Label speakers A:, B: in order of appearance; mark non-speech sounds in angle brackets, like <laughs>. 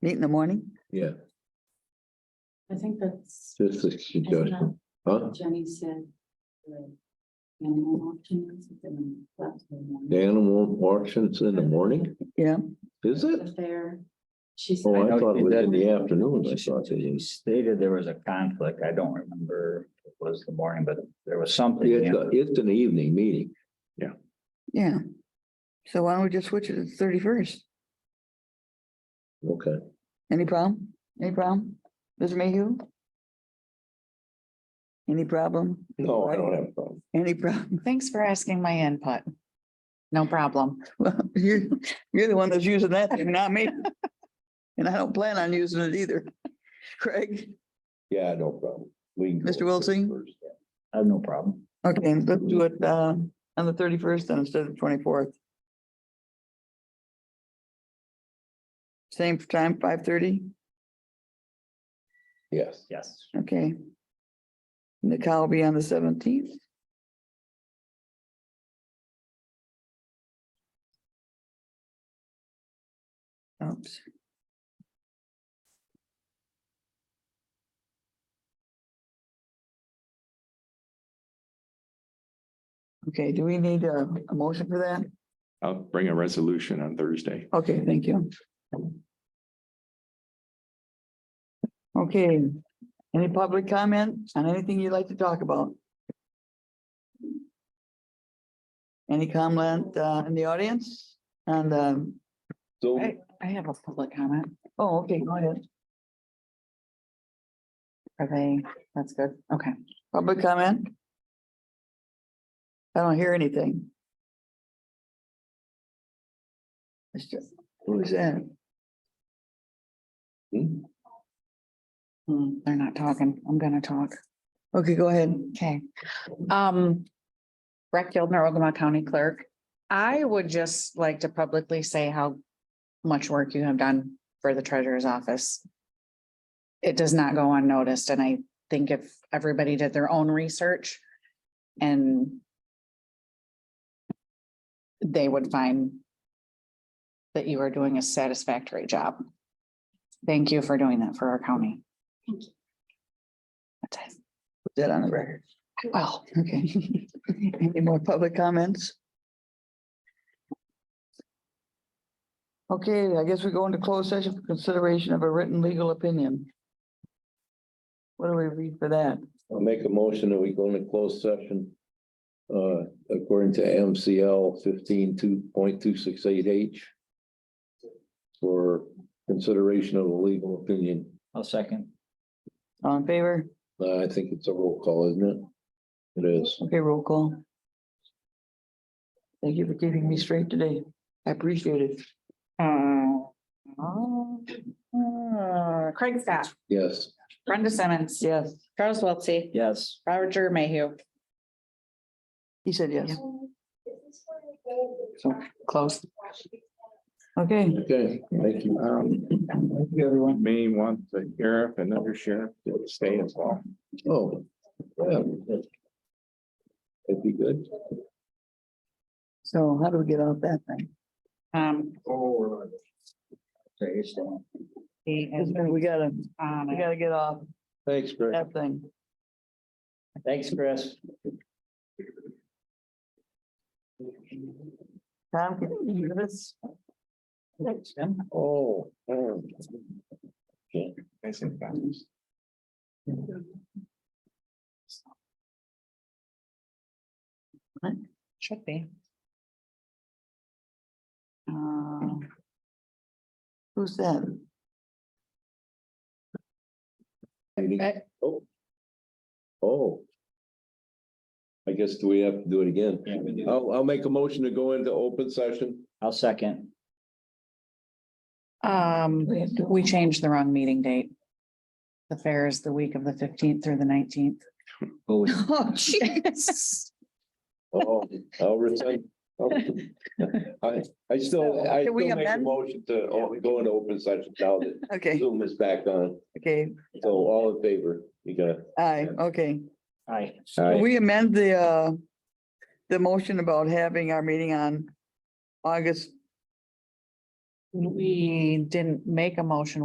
A: Meet in the morning?
B: Yeah,
C: I think that's.
B: just a suggestion, huh?
C: Jenny said. Animal options and that's.
B: The animal auctions in the morning,
A: Yeah,
B: is it?
C: There. She
B: Oh, I
C: said.
B: thought it was in the afternoon, I thought it
D: You
B: was.
D: stated there was a conflict. I don't remember if it was the morning, but there was something.
B: It's, a- it's an evening meeting,
A: yeah. So why don't we just switch it to the thirty-first?
B: okay.
A: Any problem? Any problem? Mr. Mayhew? Any problem?
B: No, I don't have a problem.
A: Any problem? <laughs>
E: Thanks for asking my input. No problem.
A: Well, you, you're the one that's using that thing, not me. And I don't plan on using it either. <laughs> Craig?
B: Yeah, no problem. We. can go
A: Mr. Wiltsing?
B: first.
D: I have no problem.
A: Okay, let's do it uh on the thirty-first then instead of twenty-fourth. Same time, five thirty,
B: Yes,
D: Yes.
A: okay. And the cow will be on the seventeenth. Oops. Okay, do we need a, a motion for that?
F: I'll bring a resolution on Thursday.
A: Okay, thank you. Okay, any public comment on anything you'd like to talk about? Any comment uh, in the audience? And, um,
B: so
E: I, I have a public comment.
A: oh, okay, go ahead.
E: Are they, that's good. Okay.
A: Public comment? I don't hear anything. Mr. Who's that?
B: hmm,
E: Hmm, They're not talking. I'm gonna talk.
A: Okay, go ahead.
E: Okay. Um, Brett Gildner, Ogama County Clerk. I would just like to publicly say how much work you have done for the treasurer's office. It does not go unnoticed, and I think if everybody did their own research and they would find that you are doing a satisfactory job. Thank you for doing that for our county.
C: Thank you.
E: That's it.
A: Put that on the record.
E: Well,
A: Okay. <laughs> Any more public comments? Okay, I guess we go into closed session for consideration of a written legal opinion. What do we read for that?
B: I'll make a motion that we go into closed session. Uh, according to MCL fifteen two point two six eight H. For consideration of a legal opinion,
D: I'll second.
A: All in favor?
B: Uh, I think it's a roll call, isn't it? It is.
A: Okay, roll call. Thank you for keeping me straight today. I appreciate it.
E: Uh, oh, uh, Craig Scott,
B: Yes.
E: Brenda Simmons,
A: Yes,
E: Charles Wiltie,
D: Yes.
E: Roger Mayhew.
A: he said yes.
E: So close.
A: Okay.
B: Okay, thank you.
F: Um, everyone may want the sheriff and under sheriff to stay as well.
B: Oh. yeah. That'd be good.
A: So how do we get off that thing?
E: Um,
D: Oh. So you're still.
E: he is
A: We gotta,
E: on
A: we
E: it.
A: gotta get off
B: Thanks, Greg.
A: that thing.
D: Thanks, Chris.
A: Tom, can you hear this? Thanks, Jim.
B: Oh. um,
F: Nice and fast.
E: Should be. Uh,
A: Who's that?
E: Okay.
B: Oh. Oh. I guess do we have to do it again?
D: Yeah, we do.
B: I'll, I'll make a motion to go into open session.
D: I'll second.
E: Um, we changed the wrong meeting date. The fair is the week of the fifteenth through the nineteenth. <laughs>
D: Oh,
E: Oh, jeez. <laughs>
B: Oh, I'll rescind. I, I still,
A: Can
B: I still
A: we
B: make a
A: amend?
B: motion to o- go into open session now that
A: Okay,
B: Zoom is back on.
A: okay,
B: So all in favor, you got it.
A: aye, okay.
D: aye.
A: We amend the, uh, the motion about having our meeting on August
E: We didn't make a motion.